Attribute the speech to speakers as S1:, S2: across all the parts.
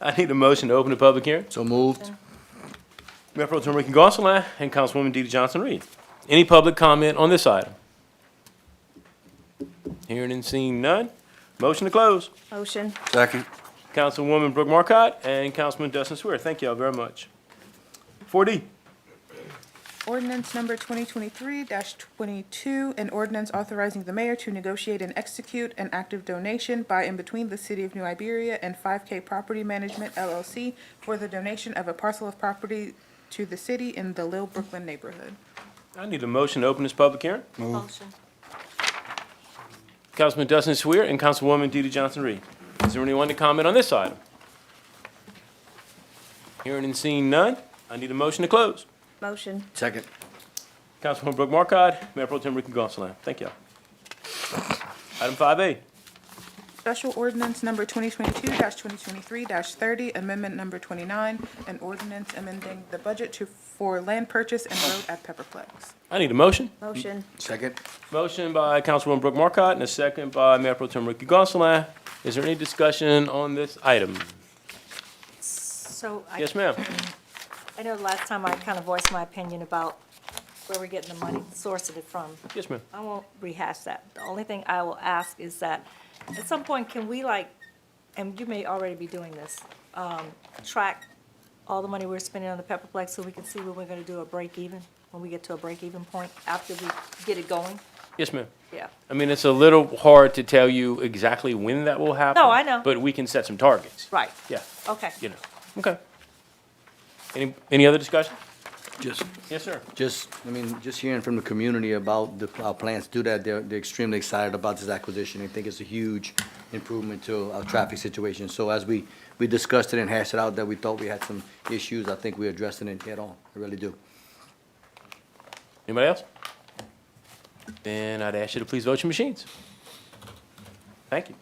S1: I need a motion to open the public hearing.
S2: So moved.
S1: Mayor Pro Tem Ricky Gonsalas and Councilwoman DeeDee Johnson-Reed. Any public comment on this item? Hearing and seeing none. Motion to close.
S3: Motion.
S2: Second.
S1: Councilwoman Brooke Marcotte and Councilman Dustin Swear. Thank y'all very much. Four D,
S3: Ordinance number 2023-22, an ordinance authorizing the mayor to negotiate and execute an active donation by and between the City of New Iberia and 5K Property Management LLC for the donation of a parcel of property to the city in the Little Brooklyn neighborhood.
S1: I need a motion to open this public hearing.
S4: Motion.
S1: Councilman Dustin Swear and Councilwoman DeeDee Johnson-Reed. Is there anyone to comment on this item? Hearing and seeing none. I need a motion to close.
S3: Motion.
S2: Second.
S1: Councilwoman Brooke Markcott, Mayor Pro Tem Ricky Gonsalas. Thank y'all. Item five A,
S3: Special ordinance number 2022-2023-30, amendment number 29, an ordinance amending the budget to, for land purchase and road at Pepperplex.
S1: I need a motion.
S4: Motion.
S2: Second.
S1: Motion by Councilwoman Brooke Markcott and a second by Mayor Pro Tem Ricky Gonsalas. Is there any discussion on this item?
S4: So I,
S1: Yes, ma'am.
S4: I know last time I kind of voiced my opinion about where we're getting the money, the source of it from.
S1: Yes, ma'am.
S4: I won't rehash that. The only thing I will ask is that, at some point, can we like, and you may already be doing this, um, track all the money we're spending on the Pepperplex so we can see when we're gonna do a break even, when we get to a break even point after we get it going?
S1: Yes, ma'am.
S4: Yeah.
S1: I mean, it's a little hard to tell you exactly when that will happen.
S4: No, I know.
S1: But we can set some targets.
S4: Right.
S1: Yeah,
S4: Okay.
S1: you know, okay. Any, any other discussion?
S2: Just,
S1: Yes, sir.
S2: just, I mean, just hearing from the community about the, our plans to do that, they're, they're extremely excited about this acquisition. They think it's a huge improvement to our traffic situation. So as we, we discussed it and hashed it out, that we thought we had some issues, I think we addressed it head on. I really do.
S1: Anybody else? Then I'd ask you to please vote your machines. Thank you.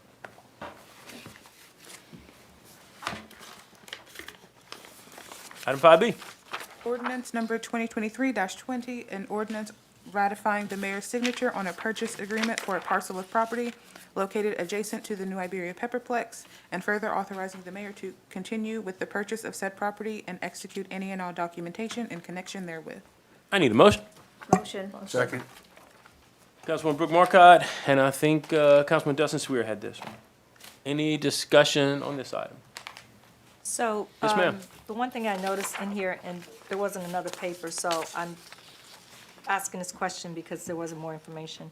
S1: Item five B,
S3: Ordinance number 2023-20, an ordinance ratifying the mayor's signature on a purchase agreement for a parcel of property located adjacent to the New Iberia Pepperplex, and further authorizing the mayor to continue with the purchase of said property and execute any and all documentation in connection therewith.
S1: I need a motion.
S4: Motion.
S2: Second.
S1: Councilwoman Brooke Markcott, and I think, uh, Councilman Dustin Sweer had this one. Any discussion on this item?
S4: So,
S1: Yes, ma'am.
S4: um, the one thing I noticed in here, and there wasn't another paper, so I'm asking this question because there wasn't more information.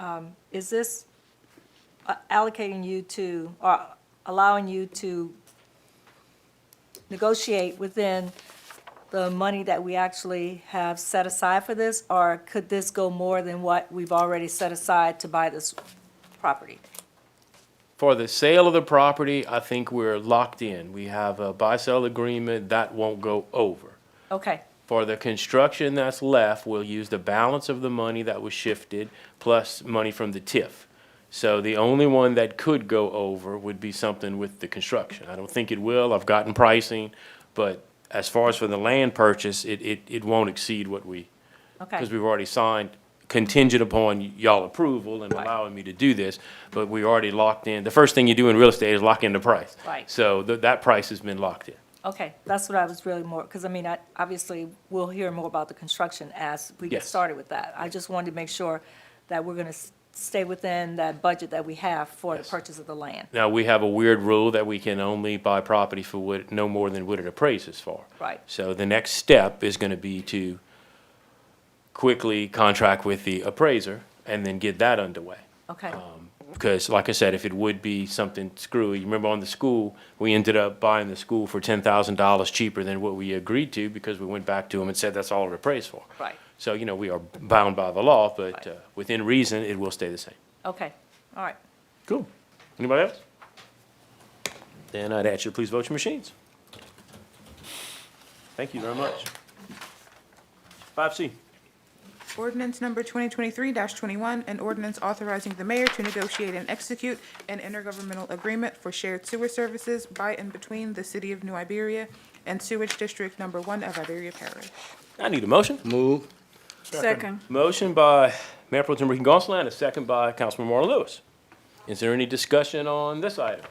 S4: Um, Is this uh, allocating you to, or allowing you to negotiate within the money that we actually have set aside for this? Or could this go more than what we've already set aside to buy this property?
S1: For the sale of the property, I think we're locked in. We have a buy-sell agreement, that won't go over.
S4: Okay,
S1: For the construction that's left, we'll use the balance of the money that was shifted, plus money from the TIF. So the only one that could go over would be something with the construction. I don't think it will, I've gotten pricing, but as far as for the land purchase, it, it, it won't exceed what we,
S4: okay.
S1: because we've already signed contingent upon y'all approval and
S4: Right.
S1: allowing me to do this, but we already locked in, the first thing you do in real estate is lock in the price.
S4: Right.
S1: So tha- that price has been locked in.
S4: Okay, that's what I was really more, because I mean, I, obviously, we'll hear more about the construction as we get
S1: Yes.
S4: started with that. I just wanted to make sure that we're going to stay within that budget that we have for the
S1: Yes.
S4: purchase of the land.
S1: Now, we have a weird rule that we can only buy property for what, no more than what it appraises for.
S4: Right.
S1: So the next step is gonna be to quickly contract with the appraiser and then get that underway.
S4: Okay,
S1: Um, Because like I said, if it would be something screwy, you remember on the school, we ended up buying the school for ten thousand dollars cheaper than what we agreed to because we went back to them and said that's all it appraised for.
S4: Right.
S1: So, you know, we are bound by the law, but,
S4: Right.
S1: uh, within reason, it will stay the same.
S4: okay, all right.
S1: Cool. Anybody else? Then I'd ask you to please vote your machines. Thank you very much. Five C.
S3: Ordinance number 2023-21, an ordinance authorizing the mayor to negotiate and execute an intergovernmental agreement for shared sewer services by and between the City of New Iberia and Sewage District Number One of Iberia Parish.
S1: I need a motion.
S2: Move.
S4: Second.
S1: Motion by Mayor Pro Tem Ricky Gonsalas, and a second by Councilman Marlon Lewis. Is there any discussion on this item?